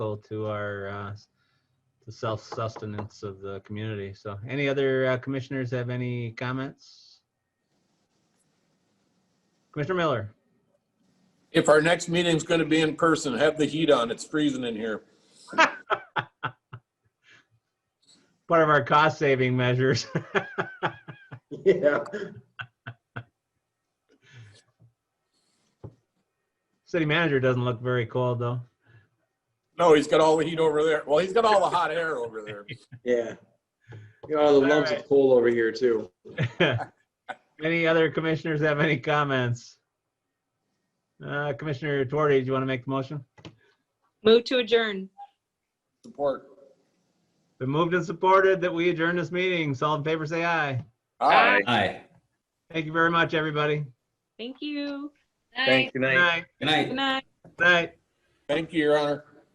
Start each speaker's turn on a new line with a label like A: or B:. A: critical to our uh, the self-sustenance of the community. So any other uh, commissioners have any comments? Commissioner Miller,
B: If our next meeting's gonna be in person, have the heat on. It's freezing in here.
A: part of our cost-saving measures.
C: Yeah.
A: City manager doesn't look very cold, though.
B: No, he's got all the heat over there. Well, he's got all the hot air over there.
C: Yeah. You know, all the lumps
A: Alright.
C: of coal over here too.
A: Any other commissioners have any comments? Uh, Commissioner Tuarte, do you want to make the motion?
D: Move to adjourn.
B: Support.
A: Been moved and supported that we adjourn this meeting. So all in favor, say aye.
B: Aye.
E: Aye.
A: Thank you very much, everybody.
D: Thank you.
A: Good night.
E: Good night.
D: Good night.
A: Good night.
B: Thank you, Your Honor.